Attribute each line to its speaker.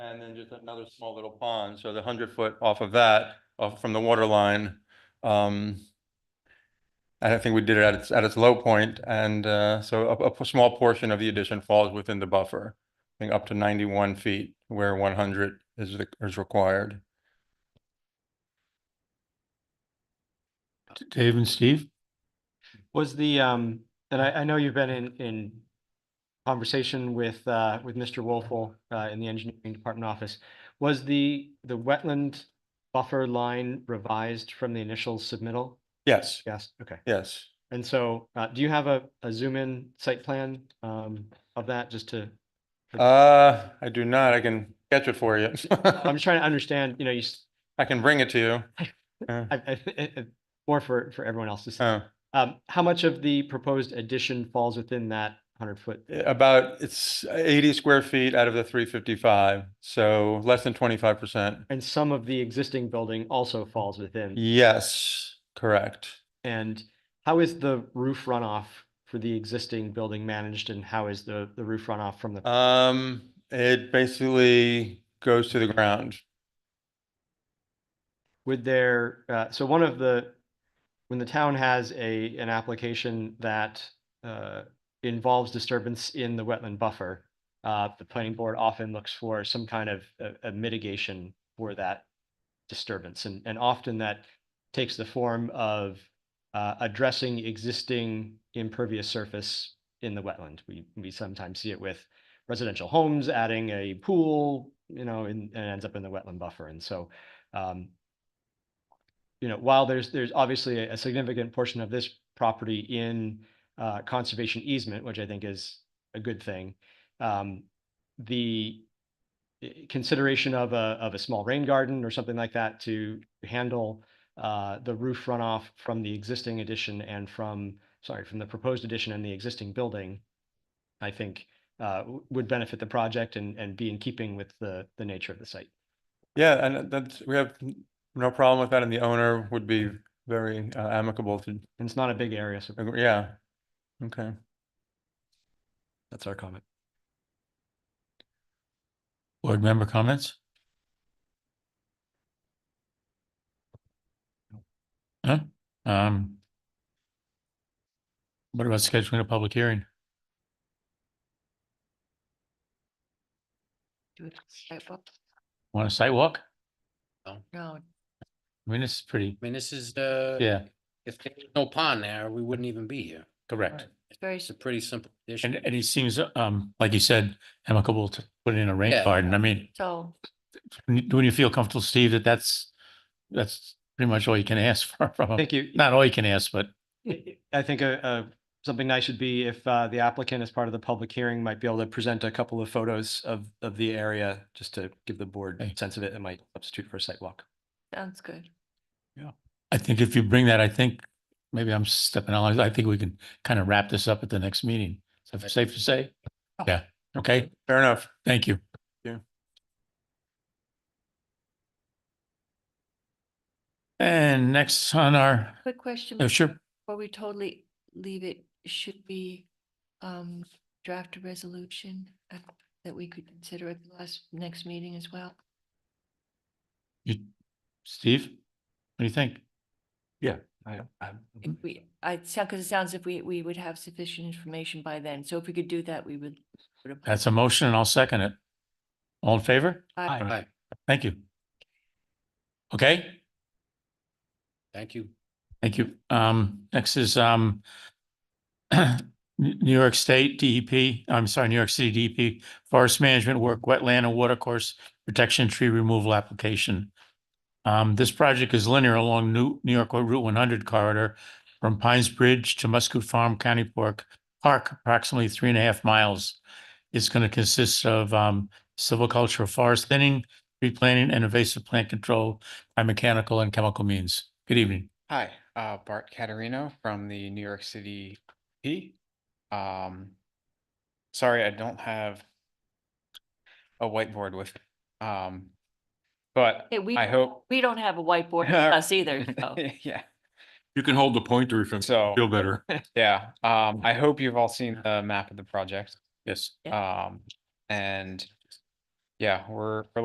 Speaker 1: just another small little pond, so the hundred foot off of that, off from the water line. Um, and I think we did it at its, at its low point, and, uh, so a, a p- small portion of the addition falls within the buffer. I think up to ninety-one feet where one hundred is, the- is required.
Speaker 2: Dave and Steve?
Speaker 3: Was the, um, and I, I know you've been in, in conversation with, uh, with Mr. Wolfel, uh, in the engineering department office. Was the, the wetland buffer line revised from the initial submittal?
Speaker 1: Yes,
Speaker 3: Yes, okay.
Speaker 1: yes.
Speaker 3: And so, uh, do you have a, a zoom in site plan, um, of that just to?
Speaker 1: Uh, I do not, I can catch it for you.
Speaker 3: I'm just trying to understand, you know, you, s-
Speaker 1: I can bring it to you.
Speaker 3: I, I, or for, for everyone else to see.
Speaker 1: Oh.
Speaker 3: Um, how much of the proposed addition falls within that hundred foot?
Speaker 1: About, it's eighty square feet out of the three fifty-five, so less than twenty-five percent.
Speaker 3: And some of the existing building also falls within?
Speaker 1: Yes, correct.
Speaker 3: And how is the roof runoff for the existing building managed and how is the, the roof runoff from the,
Speaker 1: Um, it basically goes to the ground.
Speaker 3: would there, uh, so one of the, when the town has a, an application that, uh, involves disturbance in the wetland buffer, uh, the planning board often looks for some kind of, a, a mitigation for that disturbance. And, and often that takes the form of, uh, addressing existing impervious surface in the wetland. We, we sometimes see it with residential homes, adding a pool, you know, and, and ends up in the wetland buffer. And so, um, you know, while there's, there's obviously a a significant portion of this property in, uh, conservation easement, which I think is a good thing. Um, the eh, consideration of a, of a small rain garden or something like that to handle, uh, the roof runoff from the existing addition and from, sorry, from the proposed addition and the existing building, I think, uh, w- would benefit the project and, and be in keeping with the, the nature of the site.
Speaker 1: Yeah, and that's, we have n- no problem with that, and the owner would be very uh, amicable to,
Speaker 3: And it's not a big area, so
Speaker 1: agree- yeah. Okay,
Speaker 3: that's our comment.
Speaker 2: Board member comments? Huh? Um. What about scheduling a public hearing?
Speaker 4: Do it sidewalk?
Speaker 2: Want a site walk?
Speaker 4: No,
Speaker 2: I mean, this is pretty,
Speaker 5: I mean, this is the.
Speaker 2: yeah,
Speaker 5: If there was no pond there, we wouldn't even be here.
Speaker 2: correct.
Speaker 4: it's very,
Speaker 5: It's a pretty simple
Speaker 2: And,
Speaker 5: issue.
Speaker 2: and he seems, um, like you said, amicable to put in a rain
Speaker 5: Yeah.
Speaker 2: garden. I mean,
Speaker 4: so,
Speaker 2: when you feel comfortable, Steve, that that's, that's pretty much all you can ask for from, him.
Speaker 3: Thank you.
Speaker 2: not all you can ask, but
Speaker 3: I I think a, a, something nice would be if, uh, the applicant as part of the public hearing might be able to present a couple of photos of, of the area, just to give the board
Speaker 2: Okay.
Speaker 3: sense of it, it might substitute for a site walk.
Speaker 4: sounds good.
Speaker 2: I think if you bring that, I think, maybe I'm stepping on, I think we can kind of wrap this up at the next meeting. Is that safe to say? Yeah, okay,
Speaker 1: fair enough.
Speaker 2: thank you.
Speaker 1: Yeah.
Speaker 2: And next on our,
Speaker 4: Quick question.
Speaker 2: oh, sure,
Speaker 4: Before we totally leave it, should we um draft a resolution at- that we could consider at the last, next meeting as well?
Speaker 2: you, Steve, what do you think?
Speaker 4: If we, I, because it sounds if we, we would have sufficient information by then. So if we could do that, we would. put a pub-
Speaker 2: That's a motion and I'll second it. All in favor?
Speaker 4: Aye.
Speaker 5: All right,
Speaker 2: Thank you. Okay?
Speaker 5: thank you.
Speaker 2: Thank you. Um, next is, um, New New York State DEP, I'm sorry, New York City DEP Forest Management Work Wetland and Water Course Protection Tree Removal Application. Um, this project is linear along New, New York Route one hundred corridor from Pines Bridge to Muscoot Farm County Park, Park approximately three and a half miles. It's going to consist of, um, silviculture, forest thinning, tree planting, and invasive plant control by mechanical and chemical means. Good evening.
Speaker 6: Hi, uh, Bart Caterino from the New York City P. Um, sorry, I don't have a whiteboard with, um, but
Speaker 4: Hey, we, Oh.
Speaker 6: I hope,
Speaker 4: we don't have a whiteboard with us either, so.
Speaker 6: yeah,
Speaker 7: You can hold the pointer if you
Speaker 6: so,
Speaker 7: feel better.
Speaker 6: yeah, um, I hope you've all seen the map of the project.
Speaker 2: Yes.
Speaker 6: Um, and yeah, we're, we're